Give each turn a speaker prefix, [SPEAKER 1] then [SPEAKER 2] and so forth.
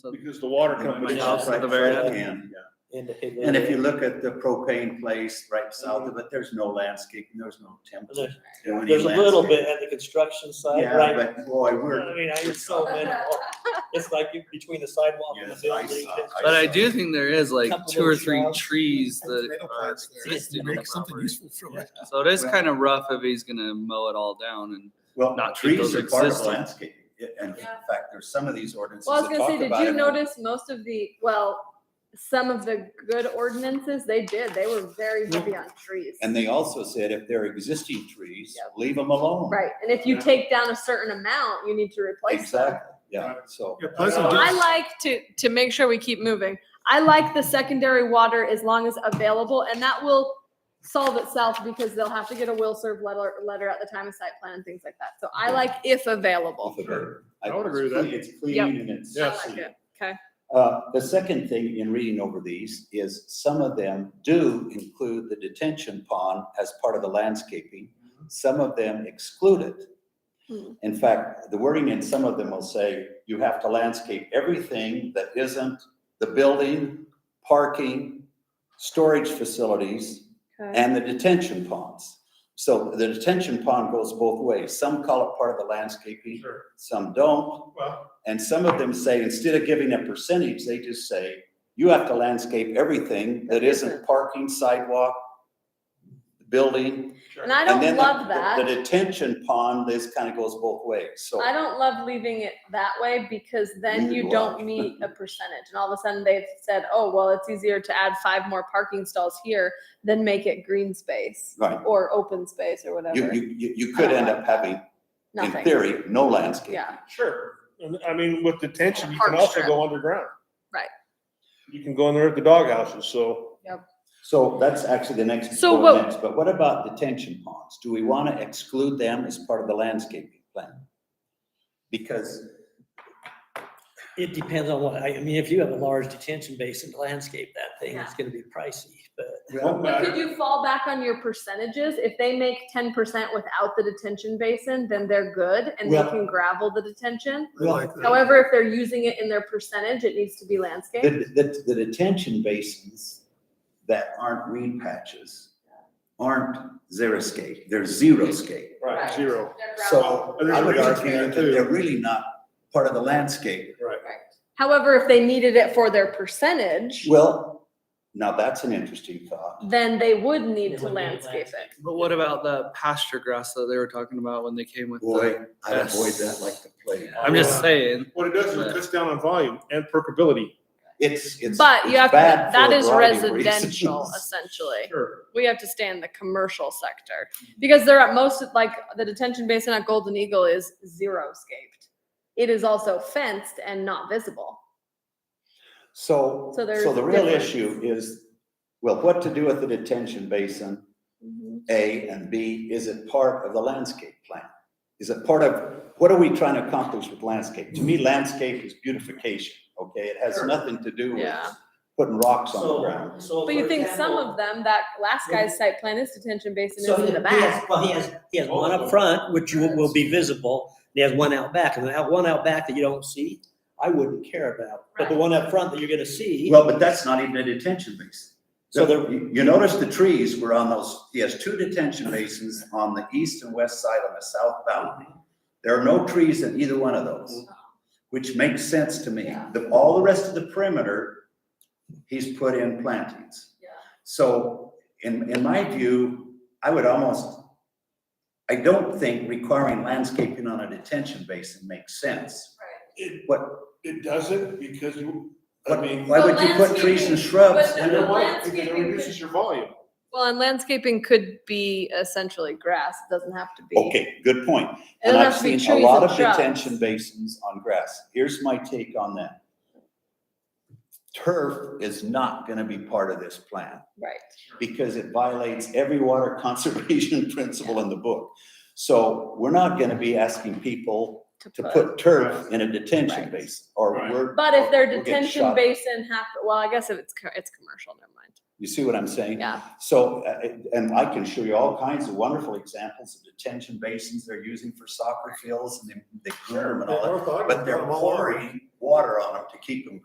[SPEAKER 1] So-
[SPEAKER 2] Because the water company.
[SPEAKER 1] My house at the very end.
[SPEAKER 3] end.
[SPEAKER 4] And the Higley.
[SPEAKER 3] And if you look at the propane place right south of it, there's no landscaping, there's no attempt to
[SPEAKER 4] There's
[SPEAKER 3] do any
[SPEAKER 4] there's a little
[SPEAKER 3] landscaping.
[SPEAKER 4] bit at the construction side,
[SPEAKER 3] Yeah,
[SPEAKER 4] right? Uh,
[SPEAKER 3] but boy,
[SPEAKER 4] I
[SPEAKER 3] we're,
[SPEAKER 4] mean, I it's so minimal. It's like you- between the sidewalk and the
[SPEAKER 3] Yes, I
[SPEAKER 4] building.
[SPEAKER 3] saw-
[SPEAKER 4] it's-
[SPEAKER 3] I
[SPEAKER 1] But I
[SPEAKER 3] saw.
[SPEAKER 1] do think there is like
[SPEAKER 4] Couple
[SPEAKER 1] two or
[SPEAKER 4] little
[SPEAKER 1] three
[SPEAKER 4] shrubs.
[SPEAKER 1] trees that uh,
[SPEAKER 5] Tomato
[SPEAKER 1] are
[SPEAKER 5] plants there.
[SPEAKER 1] existing on the
[SPEAKER 5] Make something
[SPEAKER 1] property.
[SPEAKER 5] useful from it.
[SPEAKER 1] So it is kind of rough if he's gonna mow it all down and
[SPEAKER 3] well,
[SPEAKER 1] Not trees
[SPEAKER 3] trees are part of
[SPEAKER 1] existing.
[SPEAKER 3] landscaping. It- And in
[SPEAKER 6] Yeah.
[SPEAKER 3] fact, there's some of these ordinances
[SPEAKER 6] Well, I was
[SPEAKER 3] that
[SPEAKER 6] gonna
[SPEAKER 3] talk
[SPEAKER 6] say, did
[SPEAKER 3] about
[SPEAKER 6] you
[SPEAKER 3] it.
[SPEAKER 6] notice most of the, well, some of the good ordinances, they did, they were very heavy on trees.
[SPEAKER 3] And they also said if they're existing trees,
[SPEAKER 6] Yep.
[SPEAKER 3] leave them alone.
[SPEAKER 6] Right, and if you take down a certain amount, you need to replace them.
[SPEAKER 3] Exactly, yeah, so.
[SPEAKER 2] Yeah, Pleasant
[SPEAKER 4] Well,
[SPEAKER 6] I
[SPEAKER 2] Hills,
[SPEAKER 6] like to, to make sure we keep moving, I like the secondary water as long as available, and that will solve itself because they'll have to get a will serve letter, letter at the time of site plan and things like that. So I like if available.
[SPEAKER 2] I would agree with that.
[SPEAKER 3] It's clean and it's.
[SPEAKER 6] I
[SPEAKER 2] Yes.
[SPEAKER 6] like it, okay.
[SPEAKER 3] Uh, the second thing in reading over these is some of them do include the detention pond as part of the landscaping. Some of them exclude it.
[SPEAKER 6] Hmm.
[SPEAKER 3] In fact, the wording in some of them will say, you have to landscape everything that isn't the building, parking, storage facilities,
[SPEAKER 6] Okay.
[SPEAKER 3] and the detention ponds. So the detention pond goes both ways. Some call it part of the landscaping,
[SPEAKER 2] Sure.
[SPEAKER 3] some don't.
[SPEAKER 2] Well,
[SPEAKER 3] And some of them say, instead of giving a percentage, they just say, you have to landscape everything that isn't parking, sidewalk, building.
[SPEAKER 2] sure.
[SPEAKER 6] And I
[SPEAKER 3] and
[SPEAKER 6] don't
[SPEAKER 3] then the-
[SPEAKER 6] love that.
[SPEAKER 3] The detention pond, this kind of goes both ways, so.
[SPEAKER 6] I don't love leaving it that way because then
[SPEAKER 3] Neither
[SPEAKER 6] you
[SPEAKER 3] do I.
[SPEAKER 6] don't meet a percentage. And all of a sudden they've said, oh, well, it's easier to add five more parking stalls here than make it green space
[SPEAKER 3] Right,
[SPEAKER 6] or open space or
[SPEAKER 3] you,
[SPEAKER 6] whatever.
[SPEAKER 3] you, you, you could end up having, in
[SPEAKER 6] Nothing.
[SPEAKER 3] theory, no landscape.
[SPEAKER 6] Yeah.
[SPEAKER 2] Sure. And I mean, with detention, you
[SPEAKER 6] Park
[SPEAKER 2] can also
[SPEAKER 6] strip.
[SPEAKER 2] go underground.
[SPEAKER 6] Right.
[SPEAKER 2] You can go under at the doghouses, so.
[SPEAKER 3] So that's actually the next
[SPEAKER 6] So what-
[SPEAKER 3] ordinance, but what about detention ponds? Do we want to exclude them as part of the landscaping plan? Because
[SPEAKER 4] It depends on what, I I mean, if you have a large detention basin, landscape that thing, it's gonna be pricey, but.
[SPEAKER 2] Won't
[SPEAKER 6] But could
[SPEAKER 2] matter.
[SPEAKER 6] you fall back on your percentages? If they make ten percent without the detention basin, then they're good and they
[SPEAKER 3] Well-
[SPEAKER 6] can gravel the detention.
[SPEAKER 5] I like that.
[SPEAKER 6] However, if they're using it in their percentage, it needs to be landscaped.
[SPEAKER 3] The, the, the detention basins that aren't green patches aren't xeriscape, they're zero scape.
[SPEAKER 2] Right,
[SPEAKER 6] Right.
[SPEAKER 2] zero.
[SPEAKER 3] So
[SPEAKER 2] And there's
[SPEAKER 3] I
[SPEAKER 2] a
[SPEAKER 3] would
[SPEAKER 2] reason for
[SPEAKER 3] argue
[SPEAKER 2] that
[SPEAKER 3] that
[SPEAKER 2] too.
[SPEAKER 3] they're really not part of the landscape.
[SPEAKER 6] However, if they needed it for their percentage,
[SPEAKER 3] Well, now that's an interesting thought.
[SPEAKER 6] then they would need
[SPEAKER 4] They
[SPEAKER 6] to
[SPEAKER 4] would need
[SPEAKER 6] landscape
[SPEAKER 4] landscape.
[SPEAKER 6] it.
[SPEAKER 1] But what about the pasture grass that they were talking about when they came with
[SPEAKER 3] Boy,
[SPEAKER 1] the?
[SPEAKER 3] I'd avoid that like the plague.
[SPEAKER 1] I'm just saying,
[SPEAKER 2] What it does is it cuts down on volume and perkability.
[SPEAKER 3] It's, it's.
[SPEAKER 6] But you
[SPEAKER 3] it's
[SPEAKER 6] have, to
[SPEAKER 3] bad
[SPEAKER 6] that
[SPEAKER 3] for a
[SPEAKER 6] is
[SPEAKER 3] variety of
[SPEAKER 6] residential
[SPEAKER 3] reasons.
[SPEAKER 6] essentially.
[SPEAKER 2] Sure.
[SPEAKER 6] We have to stay in the commercial sector because they're at most, like the detention basin at Golden Eagle is zero scaped. It is also fenced and not visible.
[SPEAKER 3] So,
[SPEAKER 6] So there's
[SPEAKER 3] so the real
[SPEAKER 6] difference.
[SPEAKER 3] issue is, well, what to do with the detention basin?
[SPEAKER 6] Mm-hmm.
[SPEAKER 3] A, and B, is it part of the landscape plan? Is it part of, what are we trying to accomplish with landscape? To me, landscape is beautification, okay? It has nothing to do with
[SPEAKER 6] Yeah.
[SPEAKER 3] putting rocks on the
[SPEAKER 4] So,
[SPEAKER 3] ground.
[SPEAKER 4] so.
[SPEAKER 6] But you
[SPEAKER 4] for
[SPEAKER 6] think some
[SPEAKER 4] example-
[SPEAKER 6] of them, that last guy's site plan is detention basin
[SPEAKER 4] So
[SPEAKER 6] is
[SPEAKER 4] he
[SPEAKER 6] in the
[SPEAKER 4] he
[SPEAKER 6] back.
[SPEAKER 4] has, well, he has, he has one up front, which will, will be visible, and he has one out back, and that one out back that you don't see, I wouldn't care about. But the
[SPEAKER 6] Right.
[SPEAKER 4] one up front that you're gonna see,
[SPEAKER 3] Well, but that's not even a detention basin. So
[SPEAKER 4] So there-
[SPEAKER 3] you you notice the trees were on those, he has two detention basins on the east and west side on the south boundary. There are no trees in either one of those, which makes sense to me.
[SPEAKER 6] Yeah.
[SPEAKER 3] The, all the rest of the perimeter, he's put in plantings. So in, in my view, I would almost, I don't think requiring landscaping on a detention basin makes sense.
[SPEAKER 2] It,
[SPEAKER 3] What,
[SPEAKER 2] it doesn't because you, I
[SPEAKER 3] what,
[SPEAKER 2] mean.
[SPEAKER 3] why would you put trees and
[SPEAKER 6] landscaping-
[SPEAKER 3] shrubs?
[SPEAKER 6] but
[SPEAKER 3] in
[SPEAKER 2] You
[SPEAKER 3] a-
[SPEAKER 2] know why? Because it
[SPEAKER 6] Landscaping could-
[SPEAKER 2] reduces your volume.
[SPEAKER 6] Well, and landscaping could be essentially grass. It doesn't have to be.
[SPEAKER 3] Okay, good point.
[SPEAKER 6] It
[SPEAKER 3] And
[SPEAKER 6] doesn't
[SPEAKER 3] I've
[SPEAKER 6] have to be
[SPEAKER 3] seen
[SPEAKER 6] trees
[SPEAKER 3] a lot
[SPEAKER 6] and
[SPEAKER 3] of
[SPEAKER 6] shrubs.
[SPEAKER 3] detention basins on grass. Here's my take on that. Turf is not gonna be part of this plan.
[SPEAKER 6] Right.
[SPEAKER 3] because it violates every water conservation principle in the book. So we're not gonna be asking people to put turf in a detention
[SPEAKER 6] Right.
[SPEAKER 3] basin, or
[SPEAKER 2] Right.
[SPEAKER 3] we're.
[SPEAKER 6] But if their
[SPEAKER 3] Oh, we'll get
[SPEAKER 6] detention
[SPEAKER 3] shot.
[SPEAKER 6] basin hap, well, I guess if it's, co- it's commercial, never mind.
[SPEAKER 3] You see what I'm saying?
[SPEAKER 6] Yeah.
[SPEAKER 3] So, uh, it- and I can show you all kinds of wonderful examples of detention basins they're using for soccer fields and they, they groom them and all that. But they're pouring water on them to keep them